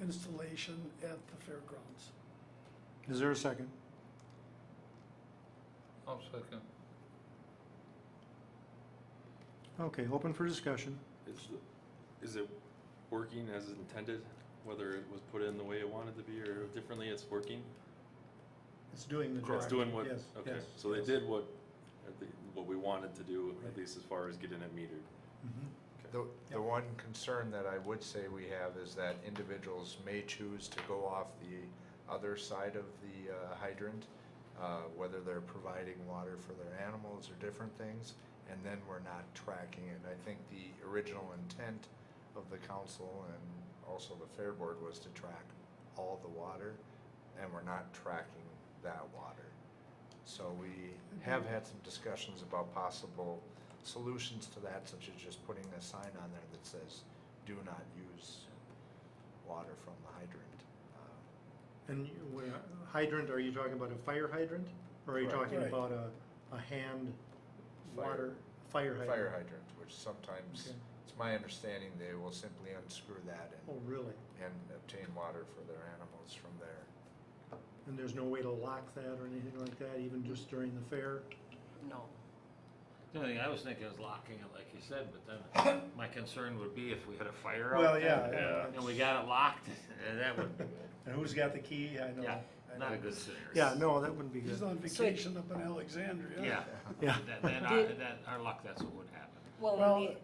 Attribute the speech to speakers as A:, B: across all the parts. A: installation at the fairgrounds.
B: Is there a second?
C: I'll second.
B: Okay, open for discussion.
D: Is, is it working as intended, whether it was put in the way it wanted to be or differently, it's working?
B: It's doing the
D: It's doing what,
B: Yes,
D: okay,
B: yes,
D: so they
B: yes.
D: did what, I think, what we wanted to do,
B: Right.
D: at least as far as getting it metered.
B: Mhm.
E: The,
B: Yep.
E: the one concern that I would say we have is that individuals may choose to go off the other side of the uh, hydrant, uh, whether they're providing water for their animals or different things, and then we're not tracking it. I think the original intent of the council and also the fair board was to track all the water, and we're not tracking that water. So we have had some discussions about possible solutions to that, such as just putting a sign on there that says, do not use water from the hydrant. Uh,
B: And you- when a hydrant, are you talking about a fire hydrant? Or are you
E: Correct.
B: talking
A: Right.
B: about a, a hand
E: Fire.
B: water, fire hydrant?
E: Fire hydrant, which sometimes,
B: Okay.
E: it's my understanding they will simply unscrew that
B: Oh,
E: and,
B: really?
E: and obtain water for their animals from there.
B: And there's no way to lock that or anything like that, even just during the fair?
F: No.
C: The only thing I was thinking is locking it, like you said, but then my concern would be if we had a fire out.
B: Well,
C: there,
B: yeah,
C: And we got it locked, and that would,
B: And who's got the key? I know.
C: yeah,
B: I
C: not a
B: know.
C: good scenario.
B: Yeah, no, that wouldn't be
A: He's
B: good.
A: on
F: So it-
A: vacation up in Alexandria.
C: Yeah,
B: Yeah.
C: that- then, our- that, our luck, that's what would happen.
F: Well,
A: Well,
F: and the,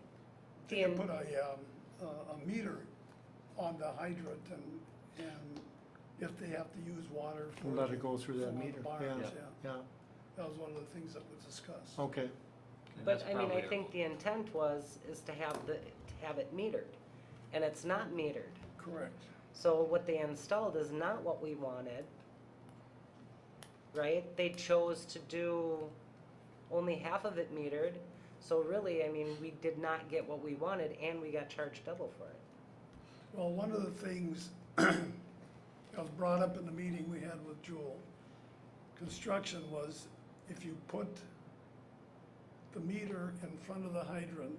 A: They
F: the,
A: could put a, um, a- a meter on the hydrant and, and if they have to use water for.
B: Let it go
A: for
B: through that
A: one of the
B: meter,
A: barns,
C: yeah.
B: Yeah,
A: That was one of the things that was discussed.
B: okay.
C: And
F: but
C: that's
F: I mean, I
C: probably a-
F: think the intent was, is to have the, to have it metered. And it's not metered.
A: Correct.
F: So what they installed is not what we wanted. Right? They chose to do only half of it metered. So really, I mean, we did not get what we wanted and we got charged double for it.
A: Well, one of the things that was brought up in the meeting we had with Jewel, construction was if you put the meter in front of the hydrant,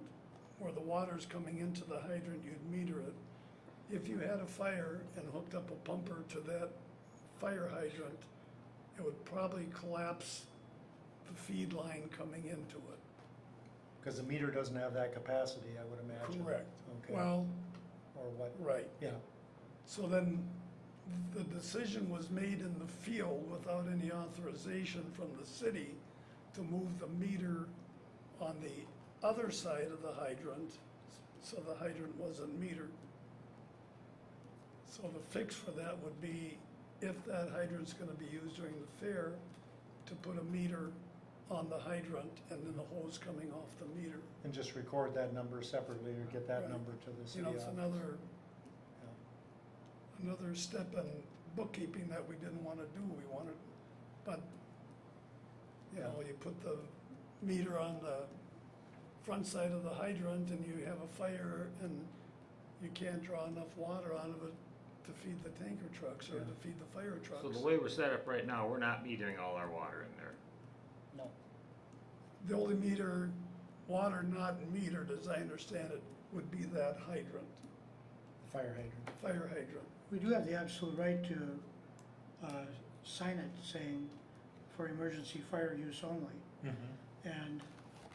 A: where the water's coming into the hydrant, you'd meter it. If you had a fire and hooked up a pumper to that fire hydrant, it would probably collapse the feed line coming into it.
B: Because the meter doesn't have that capacity, I would imagine.
A: Correct.
B: Okay.
A: Well,
B: Or what,
A: right.
B: yeah,
A: So then, the decision was made in the field without any authorization from the city to move the meter on the other side of the hydrant, so the hydrant wasn't metered. So the fix for that would be, if that hydrant's gonna be used during the fair, to put a meter on the hydrant and then the hose coming off the meter.
B: and just record that number separately or get that
A: Right.
B: number to the
A: You
B: city.
A: know, it's
B: office.
A: another
B: Yeah.
A: another step in bookkeeping that we didn't wanna do, we wanted, but, you know, you put the meter on the front side of the hydrant and you have a fire and you can't draw enough water out of it to feed the tanker trucks or to feed the fire
C: So the
A: trucks.
C: way we're set up right now, we're not metering all our water in there.
F: No.
A: The only meter, water not metered, as I understand it, would be that hydrant,
B: Fire hydrant.
A: fire hydrant.
G: We do have the absolute right to uh, sign it saying for emergency fire use only.
A: Mm-hmm.
G: And,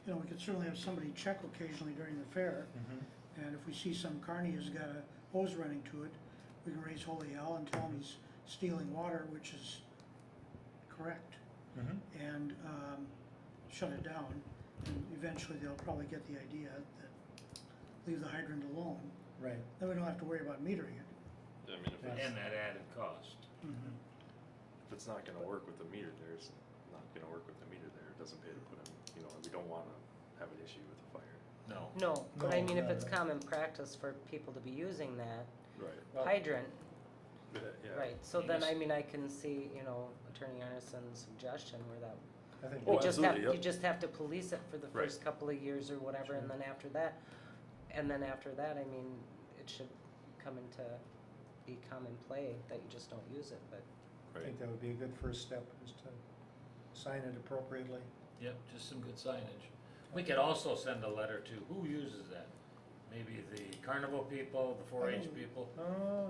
G: you know, we could certainly have somebody check occasionally during the fair. And if we see some carny has got a hose running to it, we can raise holy hell and tell him he's stealing water, which is correct.
A: Mm-hmm.
G: And um, shut it down. And eventually they'll probably get the idea that leave the hydrant alone.
B: Right.
G: Then we don't have to worry about metering it.
D: I mean, if it's,
C: And that added cost.
D: if it's not gonna work with the meter there, it's not gonna work with the meter there, it doesn't pay to put in, you know, we don't wanna have an issue with the fire.
C: No.
F: No, but I
B: No,
F: mean, if
B: no,
F: it's
B: no.
F: common practice for people to be using that
D: Right.
B: Well-
F: hydrant,
D: But, uh, yeah.
F: right, so
C: You
F: then,
C: just-
F: I mean, I can see, you know, Attorney Anderson's suggestion where that,
B: I think,
D: Oh,
F: you just have,
D: absolutely,
F: you
D: yep.
F: just have to police it for the
D: Right.
F: first couple of years or whatever, and then after that, and then after that, I mean, it should come into be common play that you just don't use it, but
B: I
D: Right,
B: think that would be a good first step is to sign it appropriately.
C: Yep, just some good signage. We could also send a letter to, who uses that? Maybe the carnival people, the four H people?
B: Oh,